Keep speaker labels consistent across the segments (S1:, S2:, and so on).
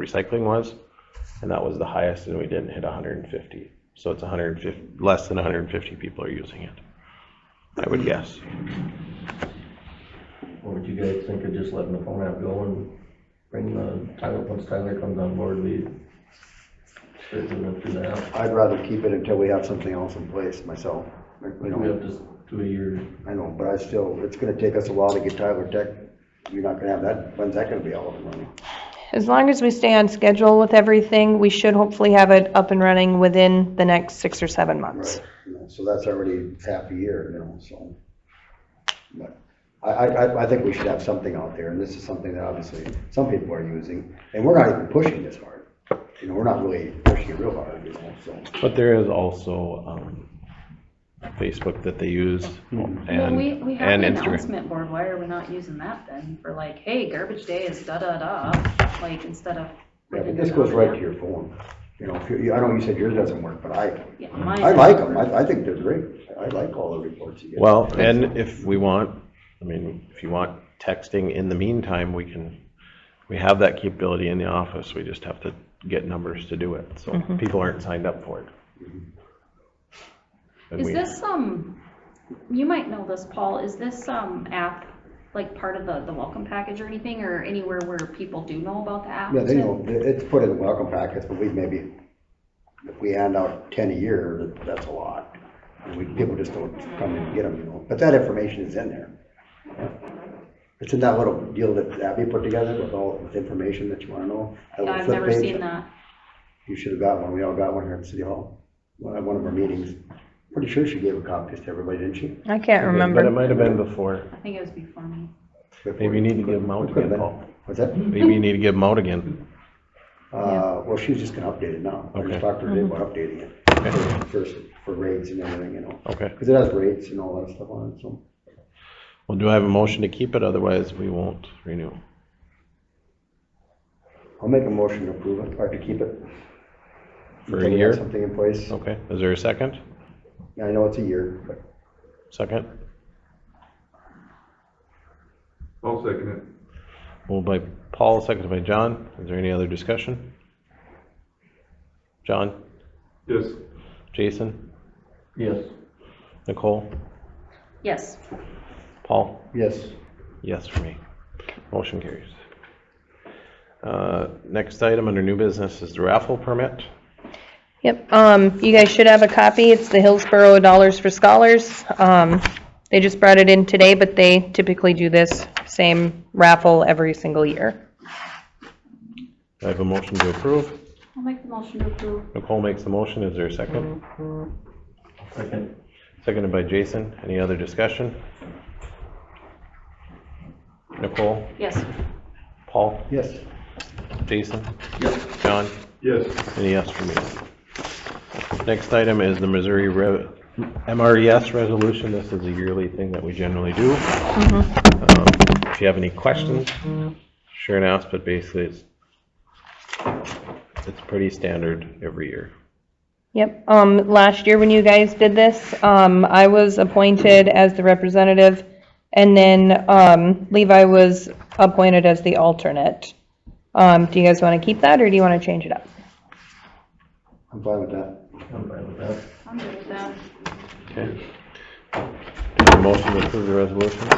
S1: recycling was, and that was the highest, and we didn't hit hundred and fifty. So it's hundred and fifty, less than hundred and fifty people are using it, I would guess.
S2: What would you guys think of just letting the phone app go and bring the Tyler, once Tyler comes on board, we straighten it through the app?
S3: I'd rather keep it until we have something else in place myself. Like, You
S2: We have
S3: know,
S2: to s- do a year,
S3: I know, but I still, it's gonna take us a while to get Tyler Tech. You're not gonna have that, when's that gonna be all up and running?
S4: As long as we stay on schedule with everything, we should hopefully have it up and running within the next six or seven months.
S3: Right, you know, so that's already half a year, you know, so. But I, I, I- I think we should have something out there, and this is something that obviously some people are using, and we're not even pushing this hard. You know, we're not really pushing it real hard, you know, so.
S1: But there is also, um, Facebook that they use and,
S5: Well, we, we have
S1: and
S5: an
S1: Instagram.
S5: announcement board, why are we not using that then? For like, hey, garbage day is da-da-da, like, instead of.
S3: Yeah, but this goes right to your phone, you know, if you, I know you said yours doesn't work, but I,
S5: Yeah,
S3: I
S5: mine,
S3: like them, I, I think they're great, I like all the reports you get.
S1: Well, and if we want, I mean, if you want texting in the meantime, we can, we have that capability in the office. We just have to get numbers to do it, so people aren't signed up for it. And
S5: is
S1: we-
S5: this, um, you might know this, Paul, is this, um, app, like, part of the, the welcome package or anything, or anywhere where people do know about the app?
S3: Yeah, they
S5: too?
S3: know, it's put in the welcome packets, but we maybe, if we hand out ten a year, that- that's a lot. And we, people just don't come and get them, you know, but that information is in there. It's in that little deal that Abby put together with all, with information that you wanna know. that
S5: Yeah,
S3: little
S5: I've
S3: flip
S5: never
S3: page.
S5: seen that.
S3: You should've got one, we all got one here at City Hall, uh, one- at one of our meetings. Pretty sure she gave a copy to everybody, didn't she?
S4: I can't
S1: But um, it
S4: remember.
S1: might have been before.
S5: I think it was before me.
S1: Maybe you need to give them out
S3: Could've
S1: again,
S3: been.
S1: Paul.
S3: What's that?
S1: Maybe you need to give them out again.
S3: Uh, well, she's just gonna update it now.
S1: Okay.
S3: I
S1: Mm-hmm.
S3: just talked to her today about updating it for, for- for rates and everything, you know.
S1: Okay.
S3: Cause it has rates and all that stuff on it, so.
S1: Well, do I have a motion to keep it? Otherwise, we won't renew.
S3: I'll make a motion to approve it, or to keep it.
S1: For a
S3: Until we have
S1: year? Oh.
S3: Something in place.
S1: Okay, is there a second?
S3: I know it's a year, but
S1: Second?
S6: I'll second it.
S1: Moved by Paul, seconded by John. Is there any other discussion? John,
S6: Yes,
S1: Jason,
S2: yes,
S1: Nicole,
S5: Yes,
S1: Paul?
S3: yes,
S1: Yes for me. Motion carries. Uh, Next item under new business is the raffle permit.
S4: Yep, um, you guys should have a copy. It's the Hillsborough Dollars for Scholars. Um, they just brought it in today, but they typically do this same raffle every single year.
S1: Do I have a motion to approve.
S5: I'll make the motion to approve.
S1: Nicole makes the motion. Is there a second?
S2: second,
S1: Seconded by Jason. Any other discussion? Nicole,
S5: Yes,
S1: Paul,
S3: yes.
S1: Jason,
S2: yes.
S1: John?
S6: yes,
S1: Any yes for me? Next item is the Missouri Re- MRES resolution. This is a yearly thing that we generally do. Um, If you have any questions, sure and ask, but basically it's, it's pretty standard every year.
S4: Yep, um, last year when you guys did this, um, I was appointed as the representative, and then, um, Levi was appointed as the alternate. Um, do you guys want to keep that, or do you want to change it up?
S3: I'm fine with that.
S2: I'm fine with that.
S5: I'm good with that.
S1: Okay. Is there a Motion to approve the resolution.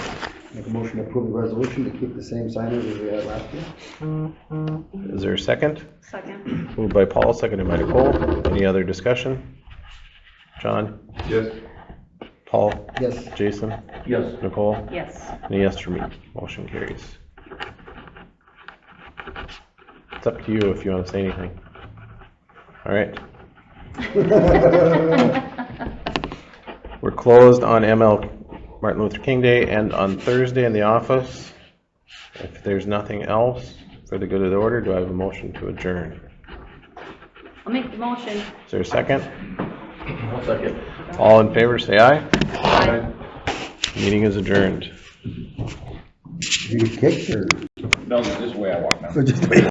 S3: Make a motion to approve the resolution to keep the same signage as we had last year.
S1: Is there a second?
S5: Second,
S1: Moved by Paul, seconded by Nicole. Any other discussion? John,
S6: yes,
S1: Paul,
S3: Yes,
S1: Jason,
S2: Yes,
S1: Nicole?
S5: yes.
S1: And a yes for me. Motion carries. It's up to you if you want to say anything. All right. We're closed on ML Martin Luther King Day and on Thursday in the office. If there's nothing else for the good of the order, do I have a motion to adjourn?
S5: I'll make the motion.
S1: Is there a second?
S2: I'll second.
S1: All in favor, say aye.
S6: Aye.
S1: Meeting is adjourned.
S3: you kicked or?
S7: No, this is the way I walk now.
S3: So just